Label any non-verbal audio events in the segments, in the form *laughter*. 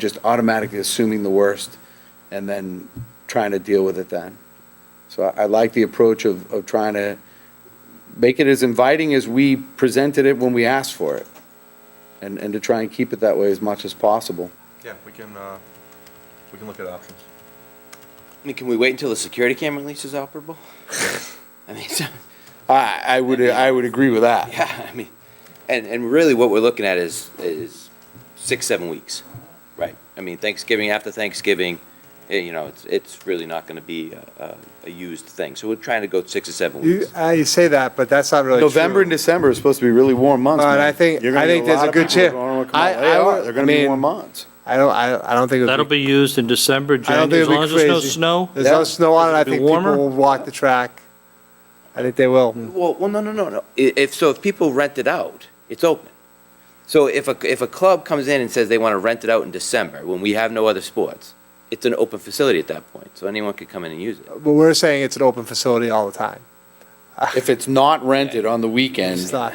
just automatically assuming the worst and then trying to deal with it then. So I, I like the approach of, of trying to make it as inviting as we presented it when we asked for it. And, and to try and keep it that way as much as possible. Yeah, we can, uh, we can look at options. I mean, can we wait until the security camera leases *laughs* operable? I mean, so, I, I would, I would agree with that. yeah, I mean, and, and really what we're looking at is, is six, seven weeks, right? I mean, Thanksgiving, after Thanksgiving, eh, you know, it's, it's really not gonna be a, a- a used thing. So we're trying to go six or seven You, weeks. uh, you say that, but that's not really true. November and December are supposed to be really warm months, But man. I think- You're gonna I get think there's lot a of good people that chan- wanna come out. I- They I are. would- They're gonna be mean- warm months. I don't, I, I don't think it That'll would be. be used in December, I don't think January, as it'd long be as there's no crazy. snow. There's no Yeah. snow on it, I It'll be think people warmer? will walk the track. I think they will. Well, well, no, no, no, no. I- If, so if people rent it out, it's open. So if a, if a club comes in and says they wanna rent it out in December, when we have no other sports, it's an open facility at that point, so anyone could come in and use it. But we're saying it's an open facility all the time. If it's not rented on the weekend. It's not,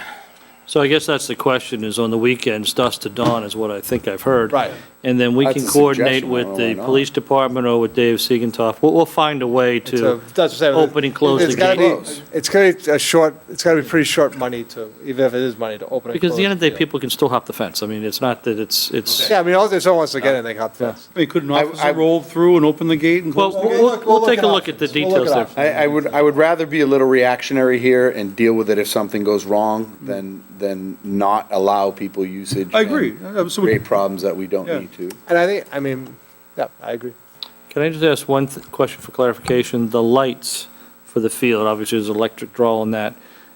So I guess that's the question, is on the weekends, dusk to dawn is what I think I've heard. Right. And then we That's can a coordinate suggestion, I don't with know why the not. police department or with Dave Siegentoff. We'll, we'll find a way it's a- to, that's what I'm saying. open and close It's the gotta gate. be- It's gonna be a short, it's gotta be pretty short money to, even if it is money to open and close. because at the end of the day, field. people can still hop the fence. I mean, it's not that it's, it's, Yeah, I mean, all, if someone wants to get in, they got this. They couldn't I- I- officer roll through and open the gate and well, close we'll, the gate? we'll- we'll take a look at the options. We'll look details at there. options. I, I would, I would rather be a little reactionary here and deal with it if something goes wrong than, than not allow people usage. I agree. and Uh, so we- Create problems that we don't Yeah. need to. And I think, I mean, yeah, I agree. Can I just ask one th- question for clarification? The lights for the field, obviously there's electric draw on that.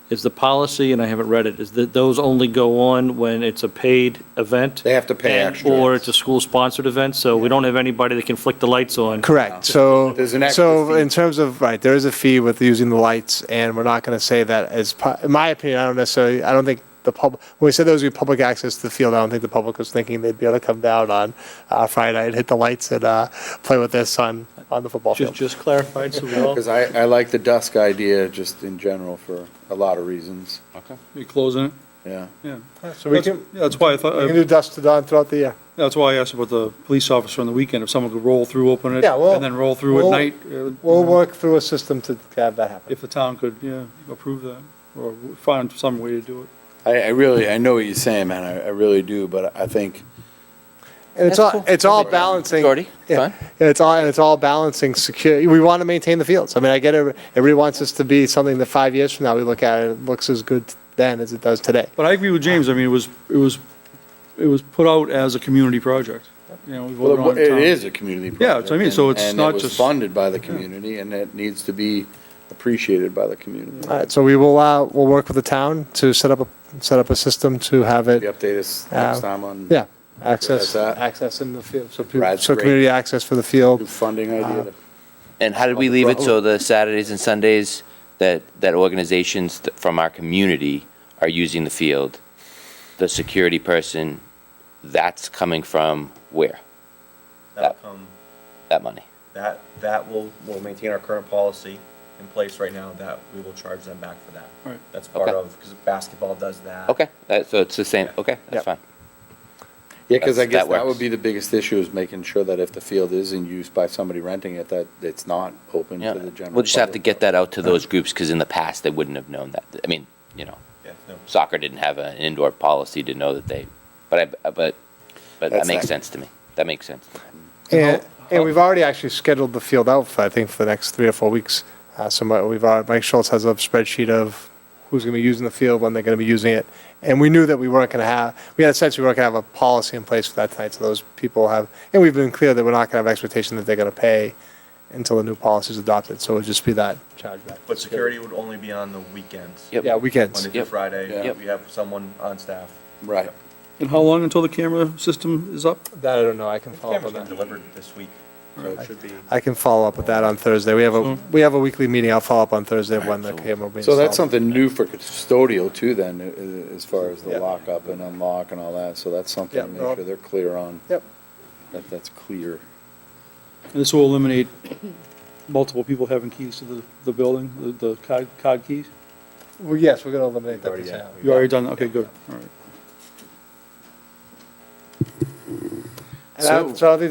Is the policy, and I haven't read it, is that those only go on when it's a paid event? They have to pay and- extra. Or it's a school-sponsored event, so we don't have anybody that can flick the lights on. Correct, so, There's an extra so fee. in terms of, right, there is a fee with using the lights, and we're not gonna say that as, pu- in my opinion, I don't necessarily, I don't think the public, when we said there was gonna be public access to the field, I don't think the public was thinking they'd be able to come down on uh, Friday night, hit the lights, and uh, play with their son on the football Just, field. just clarified, so we all, Because I, I like the dusk idea just in general for a lot of reasons, You closing it, yeah. yeah. So we That's- can, yeah, That's why I thought, we can uh, do dusk to dawn throughout the year. that's why I asked about the police officer on the weekend, if someone could roll through, open it, Yeah, well, and then roll through at we'll- night. uh, We'll work through a system to have that happen. If the town could, yeah, approve that, or find some way to do it. I, I really, I know what you're saying, man, I, I really do, but I think, And it's all, it's all balancing. Jordy, Yeah, fine. Yeah, it's all, and it's all balancing security. We want to maintain the fields. I mean, I get it. Everybody wants this to be something that five years from now, we look at it, it looks as good then as it does today. But I agree with James, I mean, it was, it was, it was put out as a community project, you know, we voted well, on it it. town. is a community project. Yeah, that's what I mean, so and- it's not And it was just- funded by the community, and it needs to be appreciated by the community. All right, so we will, uh, we'll work with the town to set up, a set up a system to have Maybe it, Update us Uh, next time on. yeah, access, That's that. access in the field. So, people- Brad's so great. community access for the new field. Funding Uh, idea. And how did we leave it so the Saturdays and Sundays that, that organizations th- from our community are using the field? The security person, that's coming from where? That'll come, That money? that, that will, will maintain our current policy in place right now, that we will charge them back for that. Right. That's part Okay. of, because basketball does that. Okay, that, so it's the same, okay, that's Yep. fine. Yeah, because I That's- guess that that would works. be the biggest issue is making sure that if the field is in use by somebody renting it, that it's not open Yeah, to the general. we'll just have to public. get that out to those groups, because in the past, they wouldn't have known that. I mean, you know, Yeah, no. soccer didn't have an indoor policy to know that they, but I, but, but that That's makes that- sense to me. That makes sense. And, and we've already actually scheduled the field out for, I think, for the next three or four weeks. Uh, so my, we've, already- Mike Schultz has a spreadsheet of who's going to be using the field, when they're going to be using it. And we knew that we weren't going to have, we had a sense we weren't going to have a policy in place for that tonight. So those people have, and we've been clear that we're not going to have expectation that they're going to pay until the new policy is adopted. So it would just be that chargeback. But security would only be on the weekends. Yep. Yeah, weekends. Monday through Yep. Friday, Yep. we have someone on staff. Right. And how long until the camera system is up? That I don't know. I can follow up Cameras on been that. delivered this week, so it should be. I can follow up with that on Thursday. We have a, we have a weekly meeting. I'll follow up on Thursday when the camera will be So that's installed. something new for custodial too then, i- i- as far as the Yeah. lockup and unlock and all that. So that's something Yeah, to make well- sure they're clear on, Yep. that that's clear. And this will eliminate multiple people having keys to the, the building, the- the cod, cod keys? Well, yes, we're going to eliminate that. Already percent. done. You already done, that? okay, good, all right. And I- so I think